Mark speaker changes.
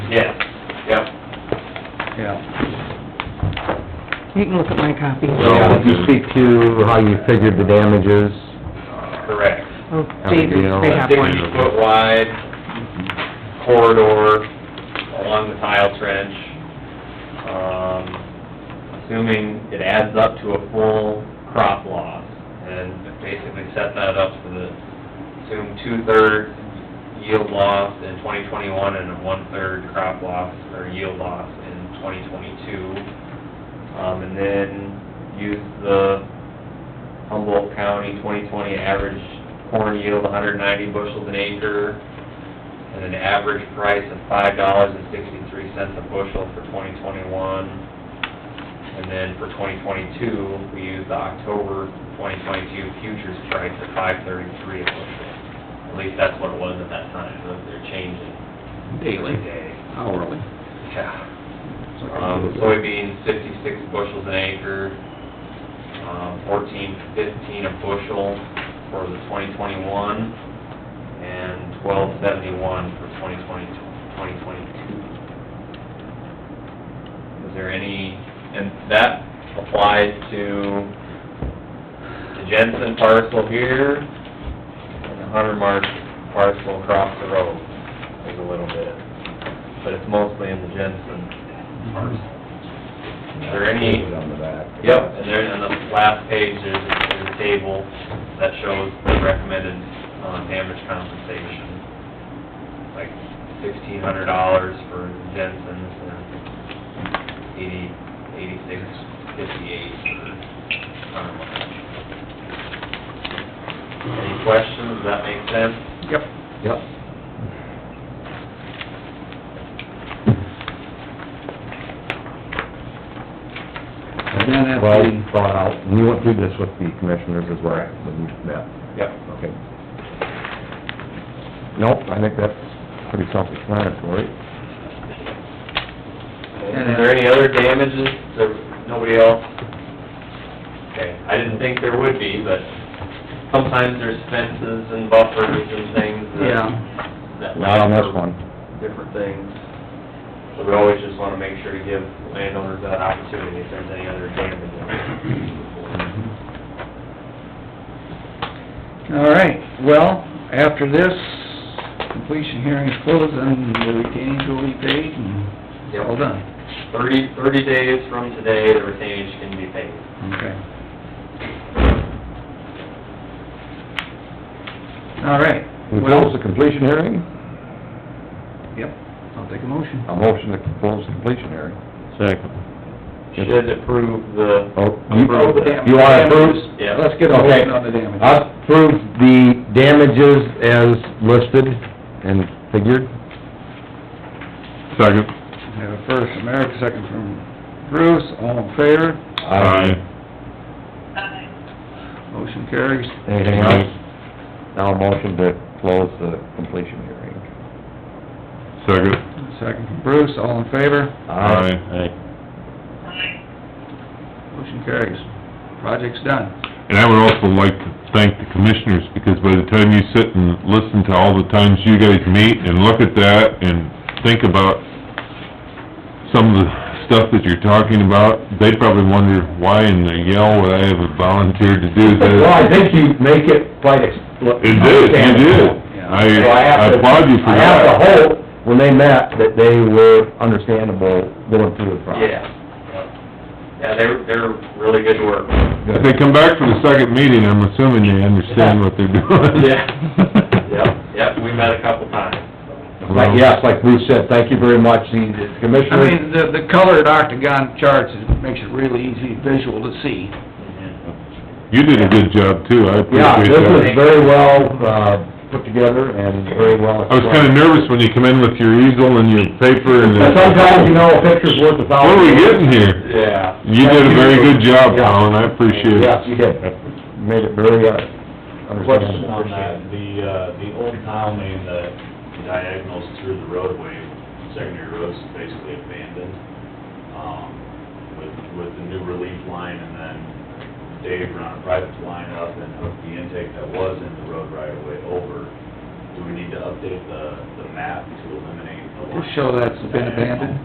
Speaker 1: Yeah, yep.
Speaker 2: Yeah.
Speaker 3: You can look at my copy.
Speaker 4: So, if you speak to how you figured the damages,
Speaker 1: Correct.
Speaker 3: Oh, David, they have one.
Speaker 1: Sixty foot wide corridor along the tile trench. Um, assuming it adds up to a full crop loss and basically set that up for the, assume two-thirds yield loss in twenty twenty-one and a one-third crop loss or yield loss in twenty twenty-two. Um, and then use the Humboldt County 2020 average corn yield 190 bushels an acre, and an average price of $5.63 a bushel for 2021. And then for 2022, we used the October 2022 futures price of 5.33 a bushel. At least that's what it was at that time, unless they're changing.
Speaker 2: Daily,
Speaker 1: Day.
Speaker 2: hourly.
Speaker 1: Yeah. Um, soybeans, fifty-six bushels an acre, um, fourteen fifteen a bushel for the twenty twenty-one, and twelve seventy-one for 2020 2022. Is there any, and that applies to the Jensen parcel here, and the Hunter Mark parcel across the road, there's a little bit, but it's mostly in the Jensen parcel. Is there any?
Speaker 4: on the back.
Speaker 1: Yep, and there, on the last page, there's, there's a table that shows the recommended, uh, damage compensation. Like sixteen hundred dollars for Jensen's and eighty, eighty-six fifty-eight for Hunter Marsh. Any questions? Does that make sense?
Speaker 2: Yep.
Speaker 4: Yep.
Speaker 2: And then at
Speaker 4: Well
Speaker 2: the,
Speaker 4: thought out, and you went through this with the commissioners as well,
Speaker 1: Correct.
Speaker 4: when you met,
Speaker 1: Yep.
Speaker 4: okay. Nope, I think that's pretty self-explanatory.
Speaker 1: Is there any other damages? There, nobody else? Okay, I didn't think there would be, but sometimes there's fences and buffers and things that,
Speaker 2: yeah,
Speaker 1: that
Speaker 4: Not on
Speaker 1: allow
Speaker 4: this
Speaker 1: for
Speaker 4: one.
Speaker 1: different things. So we always just wanna make sure to give landowners that opportunity if there's any other damages.
Speaker 2: all right, well, after this, completion hearing is closed, and the retainage will be paid, and
Speaker 1: Yep.
Speaker 2: all done.
Speaker 1: Thirty, thirty days from today, the retainage can be paid.
Speaker 2: Okay. All right,
Speaker 4: We close
Speaker 2: well,
Speaker 4: the completion hearing,
Speaker 2: yep, I'll take a motion.
Speaker 4: a motion to close the completion hearing. Second.
Speaker 1: Should approve the,
Speaker 4: Oh, you,
Speaker 1: Approve the dam-
Speaker 4: you wanna approve?
Speaker 1: yeah.
Speaker 2: Let's get a
Speaker 4: Okay.
Speaker 2: motion on the damage.
Speaker 4: Approve the damages as listed and figured. Second.
Speaker 2: We Have a first from Eric, second from Bruce, all in favor, motion carries.
Speaker 4: Anything else? Now a motion to close the completion hearing.
Speaker 5: Second.
Speaker 2: Second from Bruce, all in favor,
Speaker 5: Aye.
Speaker 2: motion carries. Project's done.
Speaker 5: And I would also like to thank the commissioners, because by the time you sit and listen to all the times you guys meet and look at that and think about some of the stuff that you're talking about, they probably wonder, why in the yell would I have volunteered to do this?
Speaker 4: Well, I think you make it quite ex...
Speaker 5: It did, you did. I
Speaker 4: So I have
Speaker 5: I
Speaker 4: to-
Speaker 5: applaud you for
Speaker 4: I have
Speaker 5: that.
Speaker 4: to hope, when they met, that they were understandable going through the process.
Speaker 1: yeah. Yeah, they're, they're really good work.
Speaker 5: If they come back for the second meeting, I'm assuming they understand what they're doing.
Speaker 1: Yeah. Yep, yep, we met a couple times.
Speaker 4: Like, yes, like Bruce said, thank you very much, the the
Speaker 2: I
Speaker 4: commissioners...
Speaker 2: mean, the, the colored octagon charts, it makes it really easy visual to see.
Speaker 5: You did a good job too, I
Speaker 4: Yeah,
Speaker 5: appreciate
Speaker 4: this was
Speaker 5: that.
Speaker 4: very well, uh, put together and very well...
Speaker 5: I was kinda nervous when you come in with your easel and your paper and the...
Speaker 4: But sometimes, you know, a picture's worth a
Speaker 5: What
Speaker 4: thousand...
Speaker 5: are we getting here?
Speaker 1: Yeah.
Speaker 5: You did a very good job,
Speaker 4: Yeah.
Speaker 5: Colin, I appreciate
Speaker 4: Yes,
Speaker 5: it.
Speaker 4: you did. Made it very, uh,
Speaker 6: Question
Speaker 4: understandable.
Speaker 6: on that, the, uh, the old tile main that diagonals through the roadway, secondary road's basically abandoned, um, with, with the new relief line, and then Dave ran a private line up and hooked the intake that was in the road right away over. Do we need to update the, the map to eliminate the line.
Speaker 2: Just show that's been abandoned.